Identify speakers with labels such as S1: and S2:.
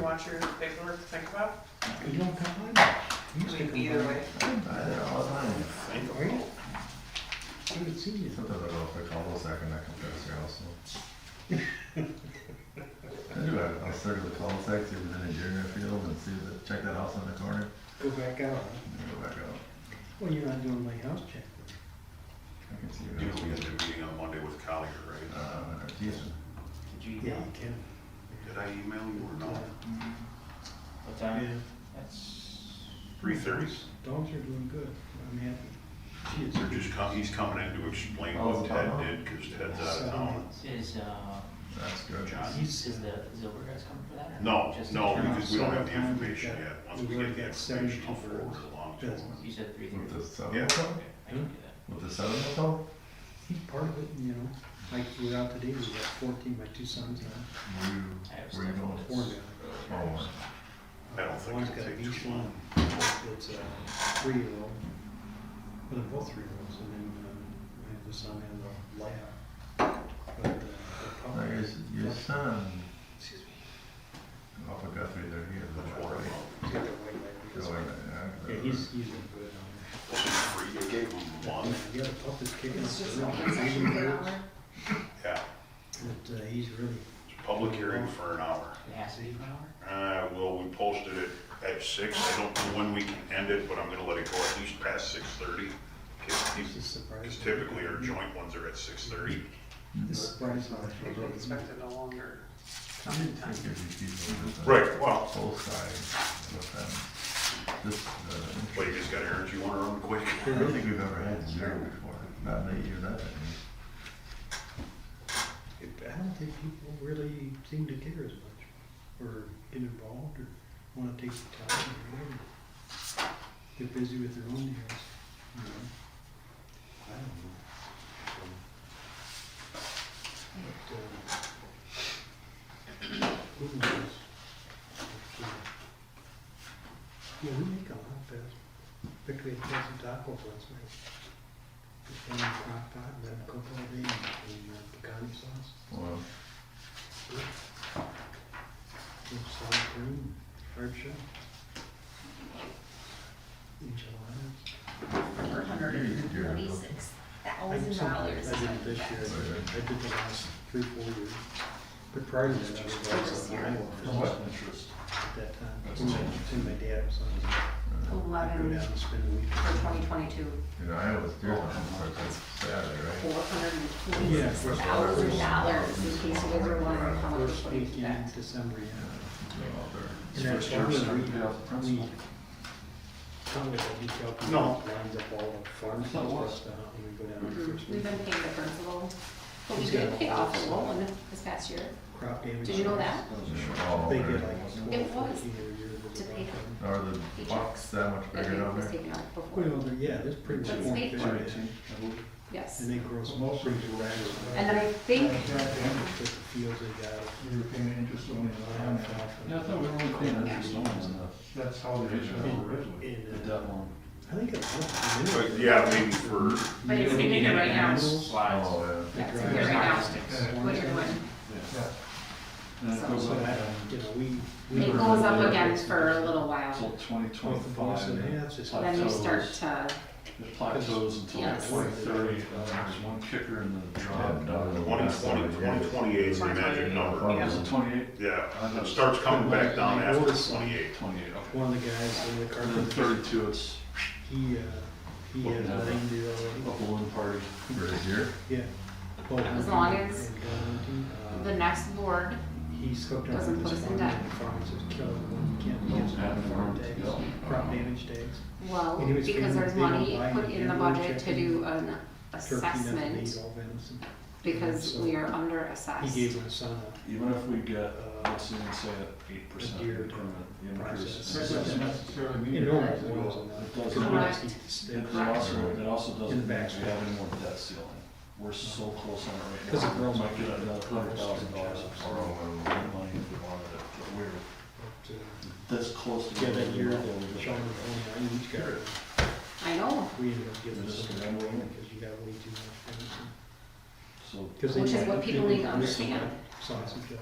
S1: want your paperwork to think about?
S2: You don't complain much. You used
S1: I
S2: to
S1: mean, either
S2: complain.
S1: way.
S3: I did all the time.
S2: Right? I haven't seen you.
S3: Sometimes I go for combo sack and that compressor also. I do, I- I'll circle the cul sac see if there's any deer in the field, and see if, check that house on the corner,
S2: Go back out. huh?
S3: and then go back out.
S2: Well, you're not doing my house check.
S3: I can see.
S4: You know, we
S3: it.
S4: had a meeting on Monday with Collier, right?
S3: Uh, Jason,
S5: Did you
S2: Yeah,
S5: email?
S2: you can.
S4: Did I email you or not?
S5: Mm-hmm. What
S2: Yeah.
S5: time? That's,
S4: Three thirty.
S2: Dogs are doing good. I'm happy. She is
S4: They're just com he's coming in to explain
S5: Oh,
S4: what
S5: it's
S4: Ted
S3: about-
S4: did, cause Ted's out of town.
S2: seven.
S5: is, uh,
S3: that's good.
S4: John.
S5: is, is the Zilber guys coming for that? or
S4: No,
S5: just-
S4: no,
S2: the-
S4: because we don't have the
S2: Seven.
S4: information yet. Once we get the information, I'll forward it along to him.
S5: You said three
S3: With
S5: thirty?
S3: the seven
S4: Yeah.
S3: or so?
S5: Okay, I can do
S3: With the seven or so?
S2: He's part of it, and, you know. Like, we're out today, we got fourteen, my two sons now,
S3: Were you,
S5: that. I have
S3: were you
S5: stuff
S3: going
S5: that's-
S2: four now.
S3: for one?
S4: I don't think
S2: One's
S4: it'll
S2: got a
S4: take too
S2: beach
S4: long.
S2: one. It's a three-year-old. Well, they're both three-year-olds, and then, um, I have the son and the lab. But, uh, they're
S4: Oh,
S3: Now, your,
S2: probably-
S3: your son,
S2: Excuse me.
S3: off of Guthrie there, he
S4: That's
S3: is.
S4: what I
S2: He's got the white light.
S3: Going,
S2: Yeah,
S3: yeah.
S2: he's, he's doing good on
S4: thought. They gave him one,
S2: that. Yeah, the pup is kicking
S6: It's
S2: us
S6: just
S2: around.
S6: open session for an hour.
S4: yeah.
S2: But, uh, he's really,
S4: It's a public hearing for an hour.
S5: It has to be for an hour?
S4: Uh, well, we posted it at six. I don't know when we can end it, but I'm gonna let it go at least past six thirty.
S2: he's just surprised.
S4: Cause typically our joint ones are at six thirty.
S2: This surprise on
S1: I usually expect it no longer.
S2: I'm in time.
S4: Right, well.
S3: uh, Both sides of the fence. This, uh,
S4: Well, you just got errands you wanna run quick?
S3: I don't think we've ever had zero before, not in eight years I've been here.
S2: I don't think people really seem to care as much, or get involved, or wanna take the time, or whatever. They're busy with their own deals, you know? I don't know. So- But, uh, who knows? But, uh, Yeah, we make a lot of best, particularly at Casa Taco last night. Just one crock pot, and then a couple of these, and uh, pecan sauce.
S3: Well,
S2: Solid green, hard shell. Enchiladas.
S6: Four hundred and forty-six thousand dollars.
S2: I did it this year, I did the last three, four years. But prior to that, I was
S6: Just
S2: also
S6: here.
S2: in Iowa
S3: For what?
S2: at that time.
S3: That's
S2: When my-
S3: insane.
S2: when my dad was on, I'd go
S6: Eleven
S2: down and spend a week.
S6: for twenty twenty-two,
S3: you know, I was uh, deer hunting, so it's Saturday, right?
S6: four hundred and forty-six thousand dollars, in case you guys are wondering how much
S2: First
S6: we're
S2: week
S6: putting
S2: in
S6: back.
S2: December, yeah.
S3: It's
S2: And that's
S4: first year,
S2: probably
S4: so
S2: we-
S4: yeah, that's
S2: we-
S4: fine.
S2: Probably the detail people
S4: No.
S2: lines up all the farm
S4: not
S2: fields
S4: worth
S2: and stuff, and we go down the
S6: Mhm.
S2: first
S6: We've
S2: week.
S6: been paying the principal, but we
S2: He's got
S6: did
S2: a
S6: pay off the
S2: lot.
S6: loan this past year.
S2: Crop damage.
S6: Did you know that?
S3: all
S2: They
S3: over.
S2: get like twelve,
S6: It was
S2: fourteen every year. with the
S6: to
S2: crop
S6: pay them.
S2: damage.
S3: Are the bucks that much
S6: That
S3: bigger down
S6: was
S3: there?
S6: taken out before,
S2: Well, they're- yeah, there's pretty much
S6: That's
S2: more
S6: big.
S2: fish in it,
S6: yes.
S2: and they grow some pretty good rabbits.
S6: And then I think,
S2: But the fields they got,
S7: We were paying interest only on that.
S2: alfalfa.
S8: Yeah, I thought we were only paying interest only on
S7: That's how it is originally.
S8: the,
S2: And, uh,
S8: that one.
S2: I think it's.
S4: But yeah, I mean, for,
S6: but it's taken it right now,
S8: Slides.
S3: Oh, yeah.
S6: yeah, it's taken it right now, what you're doing.
S7: Yeah.
S8: And it goes
S2: So
S8: up
S2: that, you know, we. we
S6: It
S2: were-
S6: goes up again for a little
S8: until
S6: while,
S8: twenty
S2: With the boss
S8: twenty-five.
S2: and
S8: It
S2: halves, it's
S6: and
S2: like,
S6: then you start to,
S8: plateaus until
S6: Yes.
S8: twenty thirty, and then there's one kicker in the drop.
S3: Yeah.
S4: 2020, 2028 is the magic number.
S8: Is it twenty-eight?
S4: Yeah, it starts coming back down after twenty-eight.
S8: Twenty-eight, okay.
S2: one of the guys in the
S8: And then
S2: carpenter,
S8: thirty-two, it's
S2: he, uh, he has
S8: Open up.
S2: letting do
S8: a
S2: already,
S8: balloon party.
S3: For the deer?
S2: yeah.
S6: As long as the
S2: as.
S6: next board
S2: He's hooked up with
S6: doesn't put
S2: this
S6: us in
S2: farm,
S6: debt.
S2: and the farm is just killing him, he can't
S8: Don't
S2: use
S8: have
S2: it for
S8: farm to
S2: days,
S8: go.
S2: crop damage days.
S6: Well,
S2: And he was
S6: because
S2: feeling
S6: there's
S2: big on
S6: money
S2: buying
S6: put in the
S2: hamburger
S6: budget to
S2: chicken,
S6: do
S2: Turkey,
S6: an
S2: nothing to eat,
S6: assessment,
S2: all venison.
S6: because
S2: so
S6: we are under
S2: He
S6: assessed.
S2: gave my son a
S8: Even if we get, uh, let's even say at eight percent
S2: deer
S8: increment, the increase.
S2: process.
S8: is-
S7: necessarily
S2: enormous ones on that.
S8: It does
S2: Couldn't
S8: not-
S2: even eat the steak.
S8: It also, it also
S2: In
S8: doesn't
S2: the
S8: mean
S2: back.
S8: we have any more debt ceiling. We're so close on it right now.
S2: 'Cause it grows
S8: Might get
S2: like-
S8: another hundred thousand dollars of
S3: Or, or,
S8: borrowing
S3: or.
S8: money if we wanted it, but we're
S2: But, uh,
S8: this close to.
S2: Yeah, that
S8: being
S2: year,
S8: able to
S2: the
S8: get
S2: Sean was only on each guy.
S6: I know,
S2: We ended up giving
S8: This is
S2: some
S8: the number one.
S2: because you got way too much venison.
S8: So
S2: 'Cause they
S6: Which is
S2: had-
S6: what people need
S2: they
S6: to
S2: had
S6: understand.
S2: Sausage.